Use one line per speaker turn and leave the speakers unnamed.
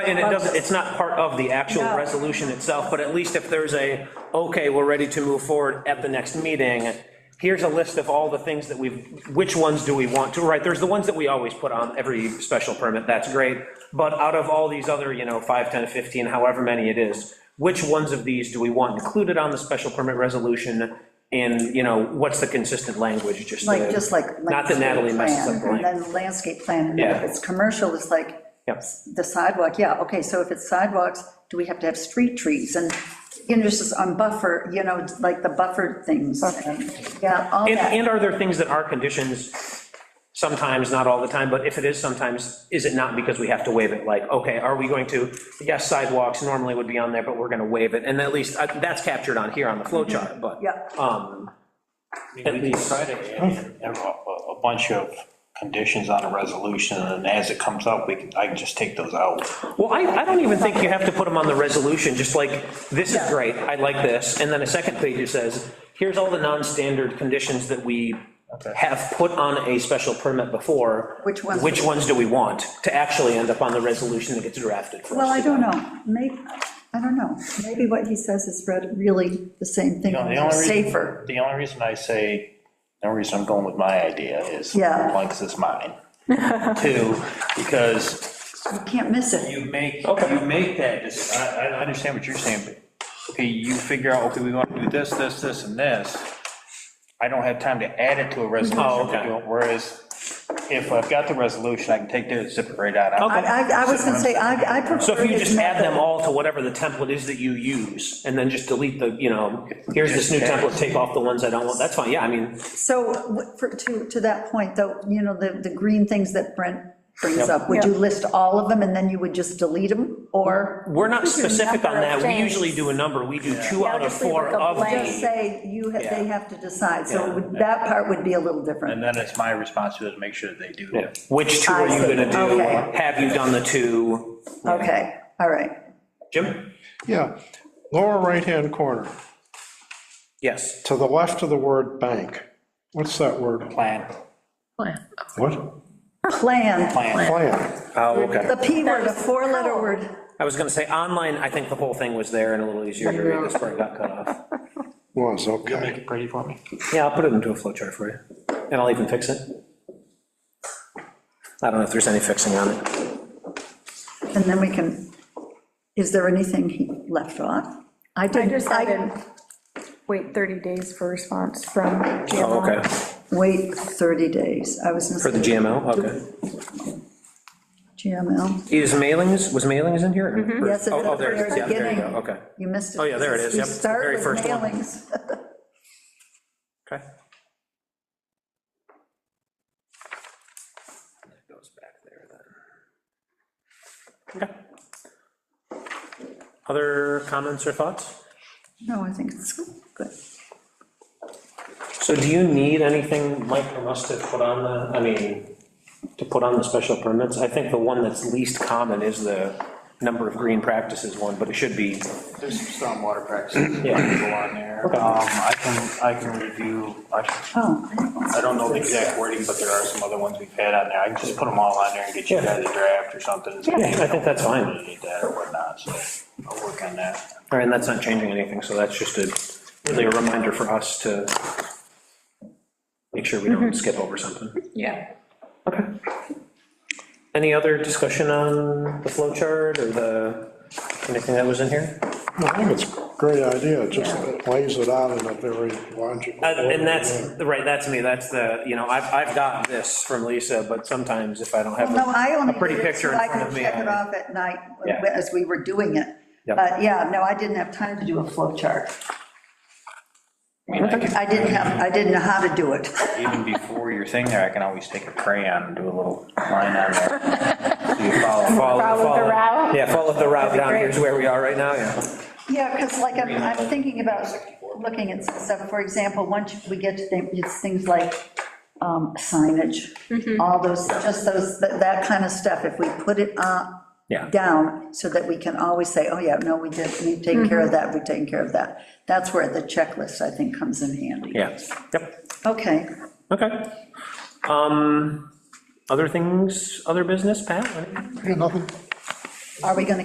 And it doesn't, it's not part of the actual
No.
resolution itself, but at least if there's a, okay, we're ready to move forward at the next meeting, here's a list of all the things that we've, which ones do we want to, right, there's the ones that we always put on every special permit, that's great, but out of all these other, you know, 5, 10, 15, however many it is, which ones of these do we want included on the special permit resolution? And, you know, what's the consistent language, just to-
Like, just like.
Not that Natalie messes
landscape
up the
plan,
language.
And then landscape plan, and then if
Yeah.
it's commercial, it's like,
Yep.
the sidewalk, yeah, okay, so if it's sidewalks, do we have to have street trees and, you know, just on buffer, you know, like the buffered things, and, yeah, all
And,
that.
and are there things that are conditions, sometimes, not all the time, but if it is sometimes, is it not because we have to waive it? Like, okay, are we going to, yes, sidewalks normally would be on there, but we're gonna waive it, and at least, uh, that's captured on here on the
Mm-hmm.
flow chart, but.
Yeah.
Um,
We
At least.
decided a, a bunch of conditions on a resolution, and as it comes up, we can, I can just take those out.
well, I, I don't even think you have to put them on the resolution, just like, this is
Yeah.
great, I like this, and then a second page it says, here's all the non-standard conditions that we have put on a special permit before.
Which ones do
Which
we-
ones do we want to actually end up on the resolution that gets drafted for us?
Well, I
to
don't know, maybe, I don't know, maybe what he says is read really the same thing,
You know, the only reason-
safer.
The only reason I say, the only reason I'm going with my idea is,
Yeah.
one, 'cause it's mine. Two, because
You can't miss it,
you make, you make that, dec- I, I understand what you're saying, but, okay, you figure out, okay, we want to do this, this, this, and this. I don't have time to add it to a
Oh,
resolution,
okay.
to do it, whereas if I've got the resolution, I can take this, zip it right out.
Okay.
I, I, I was gonna say, I, I prefer.
So if you
his
just add them
method.
all to whatever the template is that you use, and then just delete the, you know, here's this new template, take off the ones I don't want, that's fine, yeah, I mean,
So, w- for, to, to that point, though, you know, the, the green things that Brent brings
Yep.
up, would you list all of them, and then you would just delete them, or
we're not specific on
number
that,
of
we
things.
usually do a number, we do two
Yeah,
out of
just leave
four
like a
of
blank.
just
the,
say you, ha- they have to decide, so
Yeah.
it would- that part would be a little
And
different.
then it's my responsibility to make sure that they do.
Yeah. which two
I
are you
see,
gonna do?
okay.
Have you done the two?
Okay, all right,
Jim?
Yeah, lower right-hand corner,
Yes,
to the left of the word bank. What's that word?
Plan.
Plan.
What?
plan,
Plan.
Plan.
oh, okay,
the P word, a four-letter word,
I was gonna say, online, I think the whole thing was there and a little easier to read, this part got cut off.
Was, okay.
pretty for me.
Yeah, I'll put it into a flow chart for you, and I'll even fix it. I don't know if there's any fixing on it.
and then we can, is there anything he left off? I
I
didn't,
just
I,
added, wait 30 days for response from
Oh,
GMO.
okay,
wait 30 days, I was.
for the GML, okay.
Mm-hmm. GML,
Is mailings, was mailings in here? Or-
Mm-hmm. yes, it's
oh, oh,
at the
there it is.
very
Yeah, there you
beginning.
go. Okay,
You missed it.
Oh, yeah, there it is.
You
Yep, the
start
very
with
first one.
mailings.
okay. Goes back there then. Okay. Other comments or thoughts?
No, I think it's good.
So do you need anything, Mike, from us to put on the, I mean, to put on the special permits? I think the one that's least common is the number of green practices one, but it should be,
There's some stormwater practices that
Yeah.
go on there. Um,
uh,
I can, I can review, I can-
Oh.
I don't know the exact wording, but there are some other ones we've had on there. I can just put them all on there and get you
Yeah.
guys a draft or something.
Yeah, I think that's fine.
Need that or whatnot, so I'll work on that.
all right, and that's not changing anything, so that's just a, really a reminder for us to make sure we don't skip over something.
Yeah.
Okay. Any other discussion on the flow chart or the, anything that was in here?
I think it's a great idea, it just it lays it out in a very logical.
Uh, And that's,
order.
right, that's me, that's the, you know, I've, I've got this from Lisa, but sometimes if I don't have
No, I
a
only
pretty
did it so
picture in
I
front
could
of me.
check it
I-
off at night
Yeah.
as we were doing it.
Yep.
But yeah, no, I didn't have time to do a flow chart.
I mean, I can,
I didn't have, I didn't know how to do it.
even before your thing there, I can always take a crayon and do a little line on there. So you follow.
Follow
Follow the route?
Yeah, follow the route down,
great.
here's where we are right now, yeah.
Yeah, because like, I'm, I'm thinking about looking at stuff, for example, once we get to things, it's things like um, signage, all those, just those, that that kind of stuff, if we put it on,
Yeah.
down, so that we can always say, oh, yeah, no, we did, we've taken care of that, we've taken care of that. That's where the checklist, I think, comes in handy.
Yeah, yep.
Okay,
Okay. Um, Other things, other business, Pat?
Yeah, Nothing,
Are we gonna